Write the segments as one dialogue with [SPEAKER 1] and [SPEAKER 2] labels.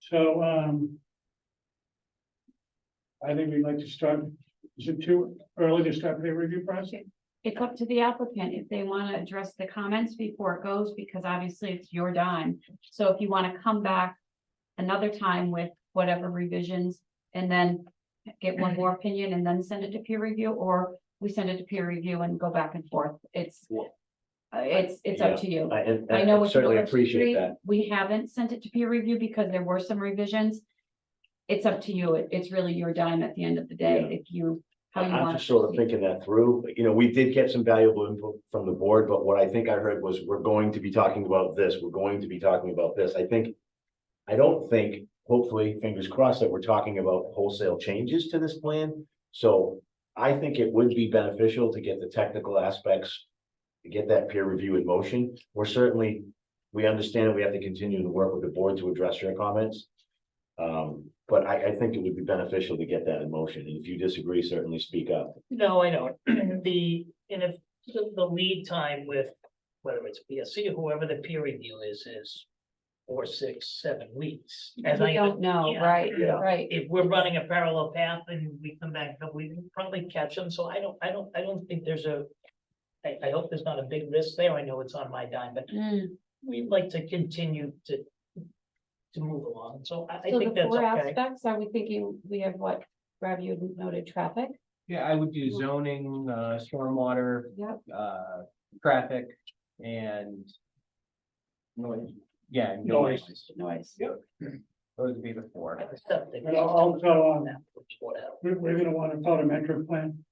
[SPEAKER 1] So, um. I think we'd like to start, is it too early to start the review process?
[SPEAKER 2] It's up to the applicant if they want to address the comments before it goes, because obviously it's your dime. So if you want to come back another time with whatever revisions and then get one more opinion and then send it to peer review, or we send it to peer review and go back and forth. It's
[SPEAKER 3] Yeah.
[SPEAKER 2] uh, it's, it's up to you.
[SPEAKER 3] I, and-
[SPEAKER 2] I know
[SPEAKER 3] I
[SPEAKER 2] with
[SPEAKER 3] certainly
[SPEAKER 2] Village
[SPEAKER 3] appreciate
[SPEAKER 2] Street,
[SPEAKER 3] that.
[SPEAKER 2] We haven't sent it to peer review because there were some revisions. It's up to you. It- It's really your dime at the end of the day,
[SPEAKER 3] Yeah.
[SPEAKER 2] if you, how you
[SPEAKER 3] I'm
[SPEAKER 2] want.
[SPEAKER 3] just sort of thinking that through, you know, we did get some valuable input from the board, but what I think I heard was, we're going to be talking about this, we're going to be talking about this, I think. I don't think, hopefully, fingers crossed, that we're talking about wholesale changes to this plan, so. I think it would be beneficial to get the technical aspects, to get that peer review in motion, we're certainly. We understand we have to continue to work with the board to address your comments. Um, but I, I think it would be beneficial to get that in motion, and if you disagree, certainly speak up.
[SPEAKER 4] No, I don't. The, and if the the lead time with, whether it's PSC or whoever the peer review is, is four, six, seven weeks. As
[SPEAKER 2] We
[SPEAKER 4] I,
[SPEAKER 2] don't know,
[SPEAKER 4] yeah.
[SPEAKER 2] right,
[SPEAKER 3] Yeah.
[SPEAKER 2] right.
[SPEAKER 4] if we're running a parallel path and we come back, but we can probably catch them. So I don't, I don't, I don't think there's a, I, I hope there's not a big risk there. I know it's on my dime, but
[SPEAKER 2] Mm.
[SPEAKER 4] we'd like to continue to to move along. So I, I
[SPEAKER 2] So the
[SPEAKER 4] think that's
[SPEAKER 2] four
[SPEAKER 4] okay.
[SPEAKER 2] aspects, are we thinking we have what, Rob, you had noted traffic?
[SPEAKER 5] Yeah, I would do zoning, uh, stormwater,
[SPEAKER 2] Yep.
[SPEAKER 5] uh, traffic and noise, yeah. and
[SPEAKER 1] Noise.
[SPEAKER 2] Noise.
[SPEAKER 5] Those would be the four.
[SPEAKER 4] Septic.
[SPEAKER 1] And also, um,
[SPEAKER 4] Whatever.
[SPEAKER 1] We're, we're gonna want a photometric plan.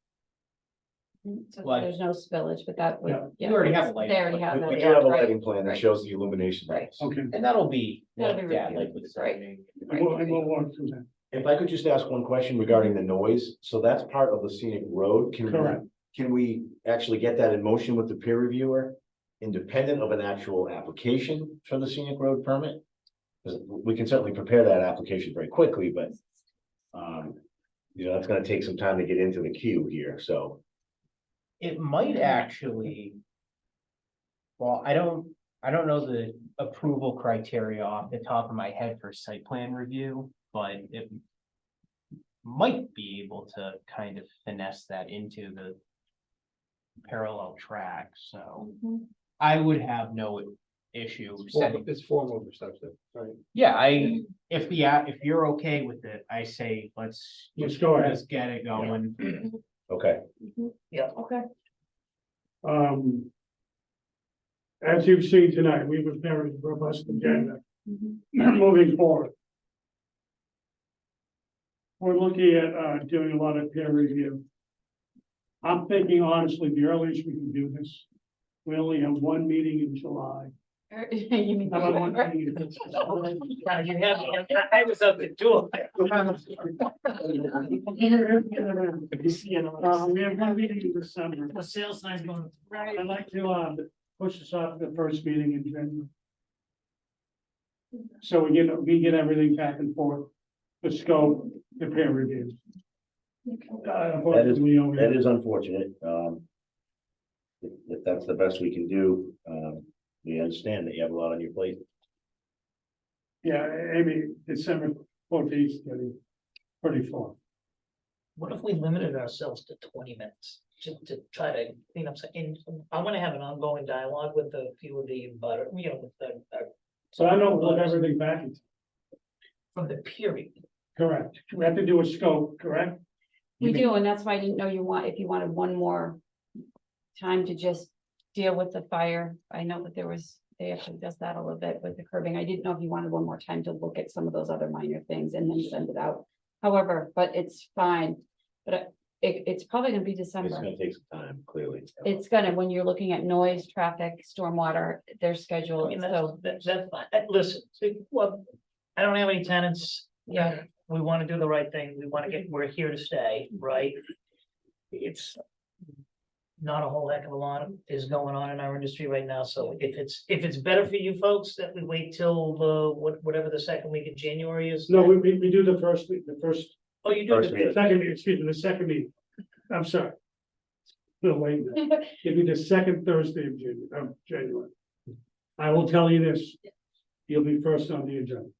[SPEAKER 2] So
[SPEAKER 5] Light.
[SPEAKER 2] there's no spillage, but that
[SPEAKER 1] Yeah.
[SPEAKER 2] would. yeah.
[SPEAKER 5] You already have a light.
[SPEAKER 2] They already have
[SPEAKER 3] We- We
[SPEAKER 2] that,
[SPEAKER 3] do have a
[SPEAKER 2] right.
[SPEAKER 3] lighting plan that
[SPEAKER 2] right.
[SPEAKER 3] shows the illumination. levels.
[SPEAKER 1] Okay,
[SPEAKER 5] And that'll be.
[SPEAKER 2] That'll be
[SPEAKER 5] looked at,
[SPEAKER 2] reviewed,
[SPEAKER 5] like, with
[SPEAKER 2] right.
[SPEAKER 5] zoning.
[SPEAKER 1] and we'll, and we'll walk through that.
[SPEAKER 3] If I could just ask one question regarding the noise, so that's part of the scenic road, can
[SPEAKER 1] Correct.
[SPEAKER 3] we, can we actually get that in motion with the peer reviewer? Independent of an actual application for the scenic road permit? 'Cause we can certainly prepare that application very quickly, but, um, you know, that's gonna take some time to get into the queue here, so.
[SPEAKER 5] It might actually. Well, I don't, I don't know the approval criteria off the top of my head for site plan review, but it. Might be able to kind of finesse that into the. Parallel track, so
[SPEAKER 2] Mhm.
[SPEAKER 5] I would have no issue setting,
[SPEAKER 6] It's form over substance, right?
[SPEAKER 5] yeah, I, if the, a- if you're okay with it, I say, let's.
[SPEAKER 1] Let's go ahead.
[SPEAKER 5] Let's get it going.
[SPEAKER 3] Okay,
[SPEAKER 2] Mhm.
[SPEAKER 4] Yeah.
[SPEAKER 2] mm-hmm, Okay,
[SPEAKER 1] Um. As you've seen tonight, we have a very robust agenda
[SPEAKER 2] Mhm.
[SPEAKER 1] moving forward. We're looking at, uh, doing a lot of peer review. I'm thinking honestly, the earliest we can do this, we only have one meeting in July.
[SPEAKER 2] You mean-
[SPEAKER 1] How about one meeting in July?
[SPEAKER 4] Now, you have, I- I was up to do it.
[SPEAKER 1] Uh, we have one meeting in December.
[SPEAKER 4] The sales sign's going. Right.
[SPEAKER 1] I'd like to, um, push this off to the first meeting in January. So we get, we get everything back and forth, the scope, the peer review. Uh, unfortunately, we only-
[SPEAKER 3] that is unfortunate, um. If, if that's the best we can do, um, we understand that you have a lot on your plate.
[SPEAKER 1] Yeah, Amy, December fourteenth, thirty, thirty-four.
[SPEAKER 4] What if we limited ourselves to twenty minutes, just to try to, you know, and I wanna have an ongoing dialogue with a few of the, butter, you know, with the, uh,
[SPEAKER 1] So I don't look everything back. into-
[SPEAKER 4] from the period.
[SPEAKER 1] Correct. We have to do a scope, correct?
[SPEAKER 2] We do, and that's why I didn't know you want, if you wanted one more time to just deal with the fire. I know that there was, they actually does that a little bit with the curbing. I didn't know if you wanted one more time to look at some of those other minor things and then send it out. However, but it's fine, but I- it, it's probably gonna be
[SPEAKER 3] It's
[SPEAKER 2] December.
[SPEAKER 3] gonna take some time, clearly.
[SPEAKER 2] It's gonna, when you're looking at noise, traffic, stormwater, their
[SPEAKER 4] I
[SPEAKER 2] schedule,
[SPEAKER 4] mean, that's,
[SPEAKER 2] so,
[SPEAKER 4] that's, that's fine. Uh, listen, see, well, I don't have any tenants.
[SPEAKER 2] yeah.
[SPEAKER 4] We wanna do the right thing, we wanna get, we're here to stay, right? It's not a whole heck of a lot is going on in our industry right now, so if it's, if it's better for you folks, that we wait till the, what, whatever the second week of January is.
[SPEAKER 1] No, we, we, we do the first, the first,
[SPEAKER 4] Oh, you do,
[SPEAKER 3] First
[SPEAKER 4] the-
[SPEAKER 1] the second, excuse me, the second meeting. I'm sorry. No, wait, it'd be the second Thursday of Janu- of January. I will tell you this, you'll be first on the agenda.